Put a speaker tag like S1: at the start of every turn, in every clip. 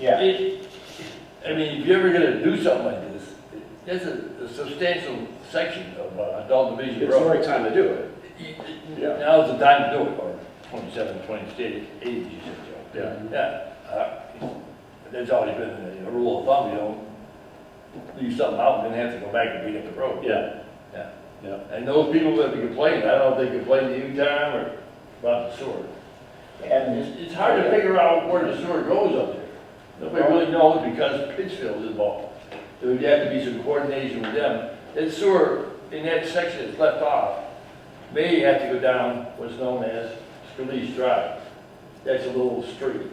S1: Yeah.
S2: It- I mean, if you're ever gonna do something like this, that's a a substantial section of uh, adult division
S1: It's the
S2: road.
S1: right time to do it.
S2: Y-
S1: Yeah.
S2: Now's the time to do it, or twenty-seven, twenty-eight, eighty, you said, Joe.
S1: Yeah.
S2: Yeah, uh, that's always been a rule of thumb, you don't leave something out, and then have to go back and beat up the road.
S1: Yeah.
S2: Yeah.
S1: Yeah.
S2: And those people that complain, I don't know if they complain to you, Tom, or about the sewer.
S3: And
S2: It's, it's hard to figure out where the sewer goes up there. Nobody really knows because Pittsfield's involved. There would have to be some coordination with them. That sewer, in that section that's left off, may have to go down what's known as Scalise Drive. That's a little street,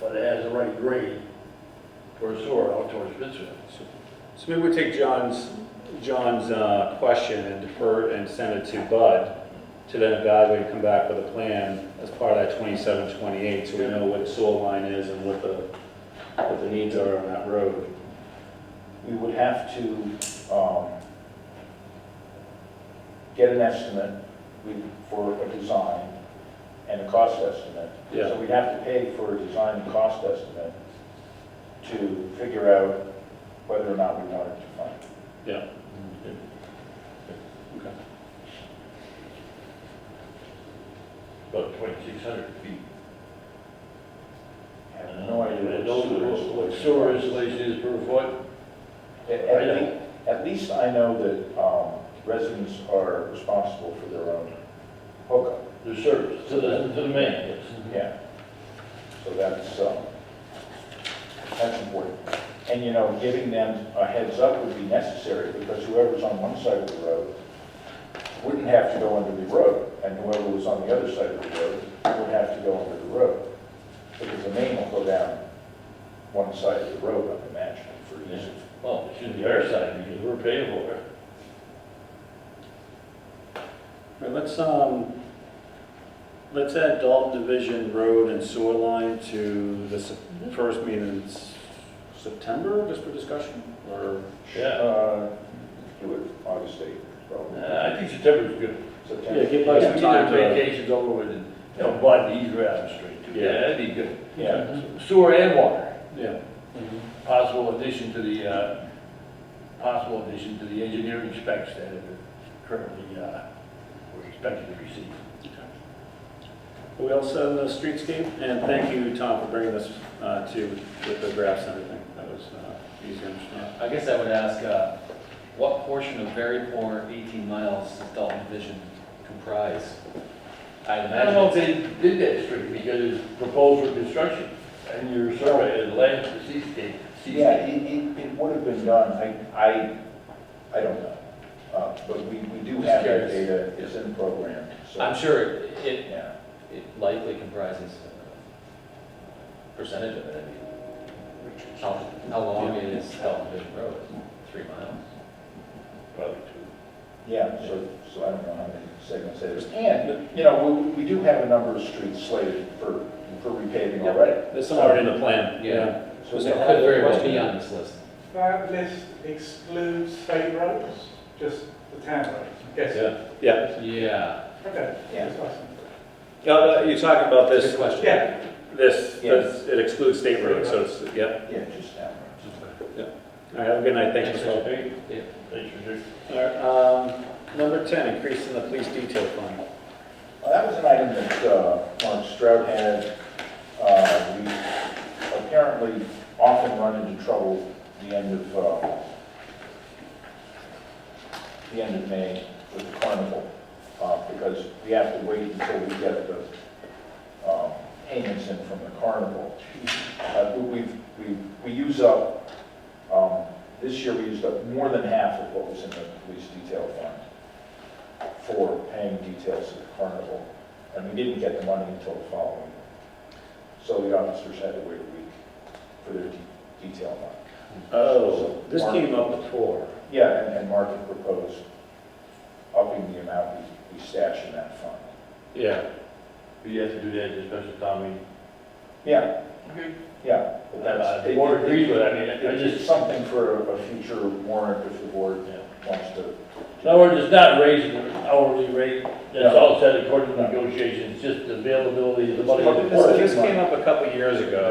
S2: but it has the right grade for a sewer out towards Pittsfield.
S1: So maybe we take John's, John's uh, question and defer and send it to Bud to then evaluate and come back with a plan as part of that 27, 28, so we know what the soil line is and what the, what the needs are on that road.
S3: we would have to, um, get an estimate we- for a design and a cost estimate.
S1: Yeah.
S3: So we'd have to pay for a design and cost estimate to figure out whether or not we wanted to fund. it.
S1: Yeah.
S2: About twenty-six hundred feet.
S3: I have no idea
S2: And
S3: what
S2: those
S3: sewer is.
S2: are what sewer installation is per foot. I
S3: At, at
S2: don't-
S3: least, at least I know that, um, residents are responsible for their own hookup,
S2: The service to the, to the man, yes.
S3: yeah. So that's, um, that's important. And, you know, giving them a heads up would be necessary, because whoever's on one side of the road wouldn't have to go under the road, and whoever was on the other side of the road would have to go under the road, because the main will go down one side of the road, I imagine, for easy.
S2: Well, it should be our side because we're paying for it.
S1: All right, let's, um, let's add Dalton Division Road and Sewer Line to the s- first meeting in s- September, just for discussion, or?
S2: Yeah.
S3: Uh, Do it August 8th, probably,
S2: Uh, I think September's good.
S1: Yeah,
S3: September.
S1: give us some
S2: Either
S1: time to.
S2: Vacation's over with and, you know, Bud, he's right on the street too.
S1: Yeah.
S2: Yeah, that'd be good.
S3: Yeah,
S2: Sewer and water,
S1: Yeah.
S2: possible addition to the, uh, possible addition to the engineering specs that are currently, uh, we're expected to receive.
S1: Are we all set on the streetscape? And thank you, Tom, for bringing this uh, to, with the graphs and everything. That was uh, easy to understand.
S4: I guess I would ask, uh, what portion of very poor 18 miles does Dalton Vision comprise? I
S2: I don't know
S4: imagine,
S2: if they did that street because it's proposed for construction and your survey is land for seascape.
S3: yeah, it, it, it would have been done, I, I, I don't know. Uh, But we, we do have that
S4: Just
S3: data, it's in program, so.
S4: I'm sure it- it
S3: Yeah,
S4: it likely comprises a percentage of it. I mean, How how long is Dalton Vision Road? Three miles?
S2: Probably two.
S3: yeah, so, so I don't know how many segments it is. And, you know, we, we do have a number of streets slated for, for repaving already.
S1: There's some already in the plan.
S4: Yeah.
S3: So
S4: It
S3: we
S4: could
S3: have a
S4: very well
S3: question.
S4: be on this list.
S5: That list excludes state roads, just the town roads, yes.
S1: Yeah. Yeah.
S4: Yeah.
S5: Okay,
S3: Yeah.
S5: that's awesome.
S1: Uh, You're talking about
S4: Good
S1: this,
S4: question.
S5: Yeah,
S1: this,
S3: Yeah.
S1: this- it excludes state roads, so it's, yeah.
S3: Yeah, just now.
S1: All right, have a good night. Thanks for calling.
S4: Yeah.
S2: Thanks for doing.
S1: All right, um, number 10, increase in the police detail fund.
S3: Well, Oh, that was an item that uh, Mark Stroud had. Uh, We apparently often run into trouble the end of, uh, the end of May with the carnival, uh, because we have to wait until we get the um, payments in from the carnival. Uh, We, we've- we, we use up, um, this year we used up more than half of what was in the police detail fund for paying details to the carnival, and we didn't get the money until the following. week. So the officers had to wait a week for their de- detail money.
S1: Oh, this came up before.
S3: Yeah, and, and Mark had proposed upping the amount we, we stash in that fund.
S1: Yeah.
S2: But you have to do that at a special town meeting.
S3: Yeah,
S2: Okay.
S3: yeah. but that's-
S2: Uh, The board agrees with it, I mean, I
S3: It's
S2: just,
S3: something for a- a future warrant if the board
S2: yeah.
S3: wants to.
S2: In other words, it's not raising the hourly rate, that's all said according to negotiations, just the availability of the money.
S1: This this came up a couple years ago.